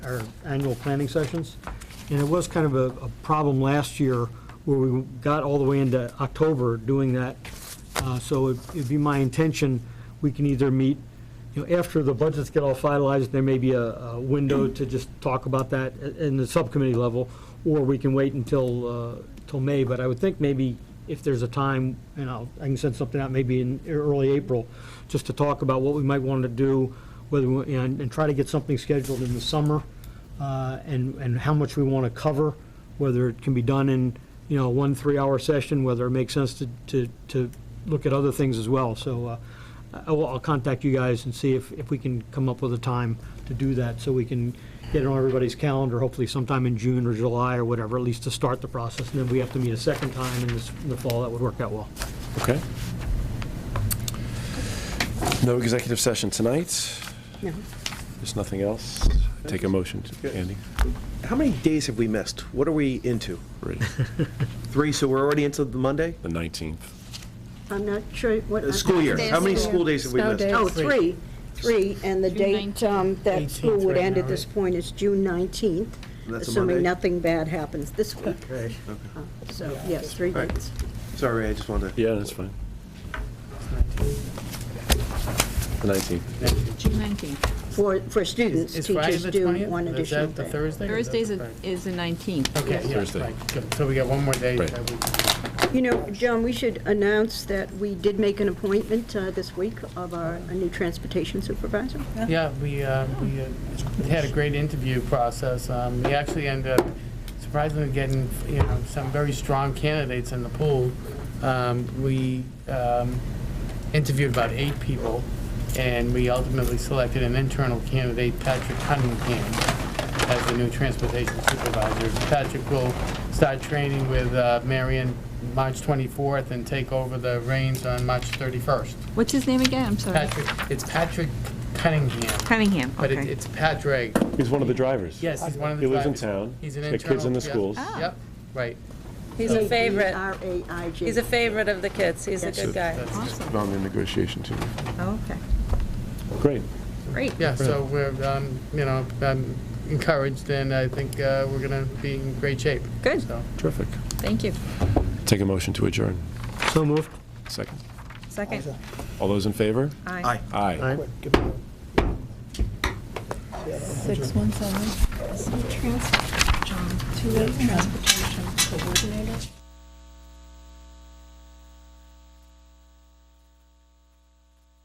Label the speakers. Speaker 1: our annual planning sessions. And it was kind of a, a problem last year where we got all the way into October doing that. Uh, So it- it'd be my intention, we can either meet, you know, after the budgets get all finalized, there may be a, a window to just talk about that i- in the subcommittee level, or we can wait until, uh, till May, but I would think maybe if there's a time, and I'll, I can send something out maybe in early April, just to talk about what we might want to do, whether, we- and, and try to get something scheduled in the summer, uh, and, and how much we want to cover, whether it can be done in, you know, one three-hour session, whether it makes sense to, to, to look at other things as well. So uh, I will, I'll contact you guys and see if, if we can come up with a time to do that, so we can get it on everybody's calendar, hopefully sometime in June or July or whatever, at least to start the process. And then we have to meet a second time in this- in the fall, that would work out well.
Speaker 2: Okay. No executive session tonight?
Speaker 3: No.
Speaker 2: There's nothing else? Take a motion, Andy?
Speaker 4: How many days have we missed? What are we into?
Speaker 2: Three.
Speaker 4: Three, so we're already into the Monday?
Speaker 2: The 19th.
Speaker 3: I'm not sure what.
Speaker 4: The school year. How many
Speaker 5: Days.
Speaker 4: school days have we
Speaker 5: Snow
Speaker 4: missed?
Speaker 5: days.
Speaker 3: Oh, three, three, and the
Speaker 5: June
Speaker 3: date um, that
Speaker 6: 18th
Speaker 3: school would
Speaker 6: right
Speaker 3: end
Speaker 6: now,
Speaker 3: at this
Speaker 6: right?
Speaker 3: point is June 19th,
Speaker 4: That's a
Speaker 3: assuming
Speaker 4: Monday.
Speaker 3: nothing bad happens this week.
Speaker 4: Okay.
Speaker 3: Uh, So, yes, three
Speaker 4: Right.
Speaker 3: dates.
Speaker 4: Sorry, I just wanted to.
Speaker 2: Yeah, that's fine. The 19th.
Speaker 5: June 19th.
Speaker 3: For, for students,
Speaker 6: Is Friday
Speaker 3: teachers
Speaker 6: the
Speaker 3: do
Speaker 6: 20th?
Speaker 3: one
Speaker 6: Is
Speaker 3: additional
Speaker 6: that the
Speaker 3: day.
Speaker 6: Thursday? or is that
Speaker 5: Thursday's
Speaker 6: the
Speaker 5: a-
Speaker 6: Friday?
Speaker 5: is the 19th.
Speaker 6: Okay,
Speaker 2: Thursday.
Speaker 6: yeah, right, good. So we got one more day.
Speaker 2: Right.
Speaker 6: that we-
Speaker 3: You know, Joan, we should announce that we did make an appointment uh, this week of our a new transportation supervisor.
Speaker 6: Yeah, we, uh, we uh, had a great interview process. Um, We actually ended up surprisingly getting, you know, some very strong candidates in the pool. Um, We um, interviewed about eight people, and we ultimately selected an internal candidate, Patrick Cunningham, as the new transportation supervisor. Patrick will start training with uh, Marion March 24th and take over the reins on March 31st.
Speaker 5: What's his name again? I'm sorry.
Speaker 6: Patrick, it's Patrick Cunningham.
Speaker 5: Cunningham,
Speaker 6: But it-
Speaker 5: okay.
Speaker 6: it's Patrick.
Speaker 2: He's one of the drivers.
Speaker 6: Yes, he's one of the
Speaker 2: He lives in
Speaker 6: drivers.
Speaker 2: town.
Speaker 6: He's an
Speaker 2: Got kids
Speaker 6: internal.
Speaker 2: in the
Speaker 6: yeah.
Speaker 2: schools.
Speaker 5: Ah.
Speaker 6: Yep, right.
Speaker 7: He's a
Speaker 3: E
Speaker 7: favorite.
Speaker 3: R-A-I-J.
Speaker 7: He's a favorite of the kids. He's a good guy.
Speaker 5: Awesome.
Speaker 2: On the negotiation team.
Speaker 5: Okay,
Speaker 2: Great.
Speaker 5: great.
Speaker 6: Yeah, so we're, um, you know, I'm encouraged and I think uh, we're going to be in great shape.
Speaker 5: Good.
Speaker 6: So,
Speaker 2: Terrific.
Speaker 5: Thank you.
Speaker 2: Take a motion to adjourn.
Speaker 1: So moved.
Speaker 2: Second.
Speaker 5: Second.
Speaker 2: All those in favor?
Speaker 5: Aye.
Speaker 2: Aye.
Speaker 5: 617. John, two-way transportation coordinator.